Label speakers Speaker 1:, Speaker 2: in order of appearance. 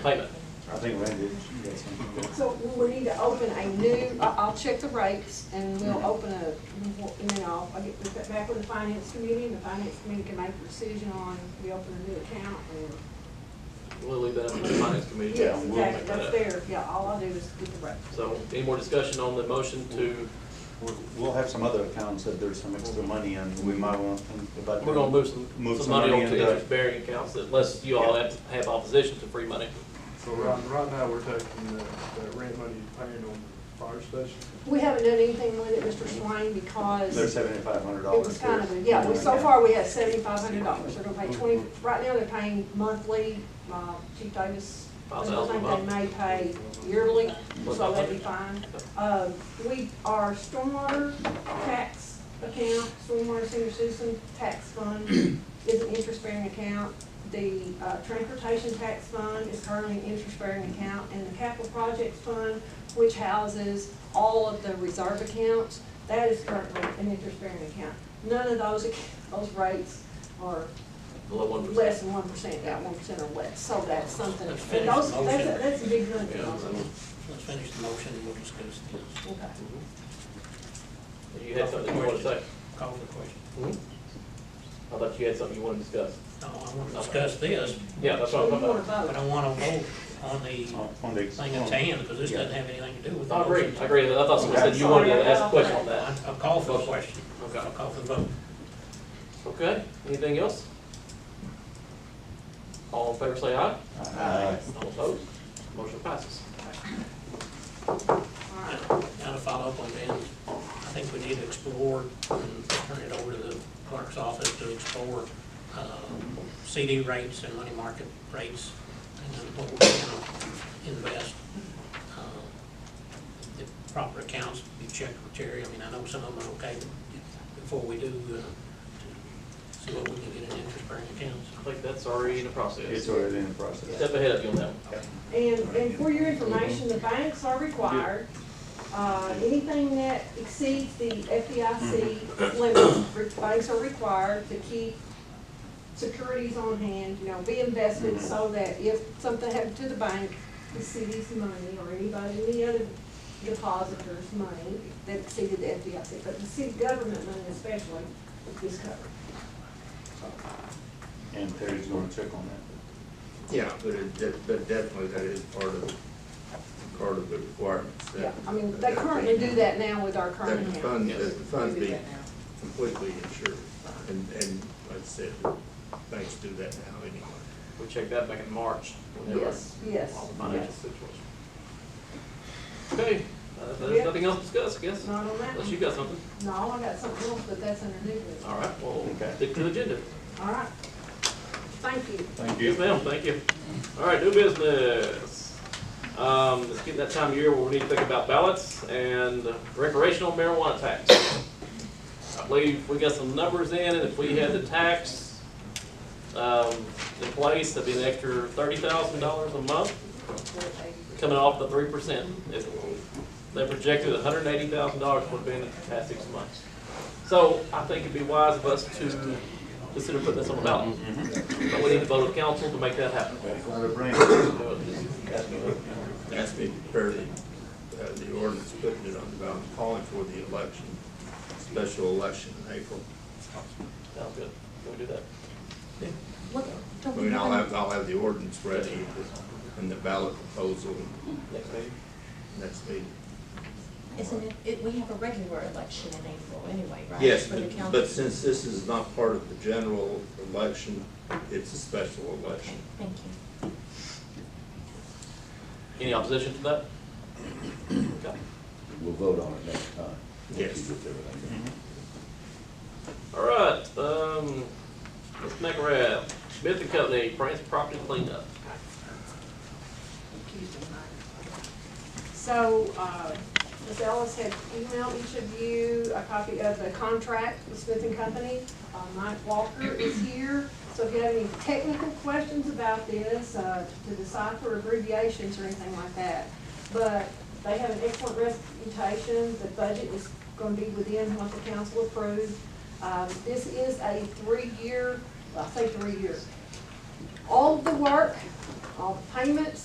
Speaker 1: payment.
Speaker 2: I think Randy, you got something.
Speaker 3: So we need to open a new, I- I'll check the rates and
Speaker 1: Mm-hmm.
Speaker 3: we'll open a, and then I'll, I'll get with that back with the finance committee and the finance committee can make a decision on, we open a new account and.
Speaker 1: We'll leave that up to the finance committee.
Speaker 3: Yes,
Speaker 1: We'll
Speaker 3: exactly,
Speaker 1: make that
Speaker 3: that's
Speaker 1: up.
Speaker 3: there, yeah, all I'll do is get the rates.
Speaker 1: So any more discussion on the motion to,
Speaker 2: We'll- We'll have some other accounts that there's some extra money in, we might want to think about.
Speaker 1: we're gonna move some,
Speaker 2: Move
Speaker 1: some
Speaker 2: some
Speaker 1: money
Speaker 2: money
Speaker 1: onto
Speaker 2: into-
Speaker 1: interest bearing accounts unless you all have, have opposition to free money.
Speaker 4: So right, right now, we're taking the, the rent money paying on the fire station.
Speaker 3: We haven't done anything with it, Mr. Swain, because
Speaker 2: There's
Speaker 3: it
Speaker 2: seventy-five hundred dollars.
Speaker 3: was kind of, a yeah, we- so far we had seventy-five hundred dollars, they're gonna pay twenty,
Speaker 1: Mm-hmm.
Speaker 3: right now they're paying monthly, uh, Chief Davis.
Speaker 1: Five thousand a month.
Speaker 3: I think they may pay yearly, so that'd be fine. Um, we, our stormwater tax account, stormwater senior citizen tax fund is an interest-bearing account. The, uh, transportation tax fund is currently an interest-bearing account, and the capital projects fund, which houses all of the reserve accounts, that is currently an interest-bearing account. None of those, ac- those rates are
Speaker 1: Below one percent.
Speaker 3: less than one percent, yeah, one percent or less, so that's something, and those, that's, a- that's a big number.
Speaker 1: Yeah.
Speaker 5: Let's finish the motion and we'll discuss this.
Speaker 3: Okay.
Speaker 1: Mm-hmm. You had something you wanted to say? Mm-hmm.
Speaker 5: Call the question.
Speaker 1: I thought you had something you wanted to discuss.
Speaker 5: No, I want to discuss this,
Speaker 1: Yeah, that's what
Speaker 3: So
Speaker 1: I'm
Speaker 3: you
Speaker 1: talking
Speaker 3: wanna
Speaker 1: about.
Speaker 3: vote?
Speaker 5: but I want to vote on the
Speaker 2: Oh, On the.
Speaker 5: thing at hand because this doesn't have anything to do with. the
Speaker 1: Oh. I agree,
Speaker 5: motion.
Speaker 1: I agree. I thought someone said you wanted to ask a question on that.
Speaker 5: I- I'll call for the question.
Speaker 1: Okay.
Speaker 5: I'll call for the vote.
Speaker 1: Okay, anything else? All in favor say aye.
Speaker 2: Aye.
Speaker 1: All opposed? Motion passes.
Speaker 3: All right.
Speaker 5: Now to follow up on that, I think we need to explore and turn it over to the clerk's office to explore uh, CD rates and money market rates and then what we're gonna invest. uh, The proper accounts, you check with Terry, I mean, I know some of them are okay, but before we do, uh, see what we can get in interest bearing accounts.
Speaker 1: I think that's already in the
Speaker 2: It's
Speaker 1: process.
Speaker 2: already in the process.
Speaker 1: Step ahead of you on that one.
Speaker 3: And, and for your information, the banks are required, uh, anything that exceeds the FDIC limit, re- banks are required to keep securities on hand, you know, be invested
Speaker 2: Mhm.
Speaker 3: so that if something happened to the bank, the city's money or anybody, any other depositor's money that exceeded the FDIC, but the city government money especially is covered.
Speaker 2: And Terry's gonna check on that.
Speaker 6: Yeah, but it, de- but definitely that is part of, part of the requirements. that-
Speaker 3: Yeah, I mean, they currently do that now with our current
Speaker 6: That
Speaker 3: account.
Speaker 6: the fund,
Speaker 1: Yes.
Speaker 6: that the fund
Speaker 3: They do
Speaker 6: be
Speaker 3: that now.
Speaker 6: completely insured, and, and like I said, banks do that now anyway.
Speaker 1: We checked that back in March. whenever
Speaker 3: Yes, yes,
Speaker 1: All the financial
Speaker 3: yes.
Speaker 1: situation. Okay, uh,
Speaker 3: Yeah.
Speaker 1: there's nothing else to discuss, I guess,
Speaker 3: Not on that
Speaker 1: unless
Speaker 3: one.
Speaker 1: you've got something.
Speaker 3: No, I got something else, but that's under new business.
Speaker 1: All right, well,
Speaker 2: Okay.
Speaker 1: stick to the agenda.
Speaker 3: All right. Thank you.
Speaker 2: Thank
Speaker 1: Yes, ma'am, thank you. All right, new business. Um, it's getting that time of year where we need to think about ballots and recreational marijuana tax. I believe we got some numbers in, and if we had the tax, um, in place, that'd be an extra thirty thousand dollars a month, coming off the three percent. They projected hundred and eighty thousand dollars for being in the past six months. So I think it'd be wise of us to consider putting this on the ballot. But we need to vote of council to make that happen.
Speaker 6: That's me, barely, uh, the ordinance putting it on the ballot, calling for the election, special election in April.
Speaker 1: Sounds good. Can we do that?
Speaker 6: I mean, I'll have, I'll have the ordinance ready and the ballot proposal
Speaker 1: Next meeting?
Speaker 6: next meeting.
Speaker 7: Isn't it, it, we have a regular election in April anyway, right?
Speaker 6: Yes,
Speaker 7: For the
Speaker 6: but-
Speaker 7: council.
Speaker 6: but since this is not part of the general election, it's a special election.
Speaker 7: Thank you.
Speaker 1: Any opposition to that? Okay.
Speaker 8: We'll vote on it next time. once you
Speaker 6: Yes.
Speaker 8: get everything.
Speaker 2: Mm-hmm.
Speaker 1: All right, um, Ms. McRae, Smith and Company, France Property Cleanup.
Speaker 3: So, uh, Ms. Ellis had emailed each of you a copy of the contract with Smith and Company. Uh, Mike Walker is here, so if you have any technical questions about this, uh, to decipher abbreviations or anything like that. But they have an excellent reputation, the budget is gonna be within what the council approved. Um, this is a three-year, well, I say three years. All of the work, all the payments,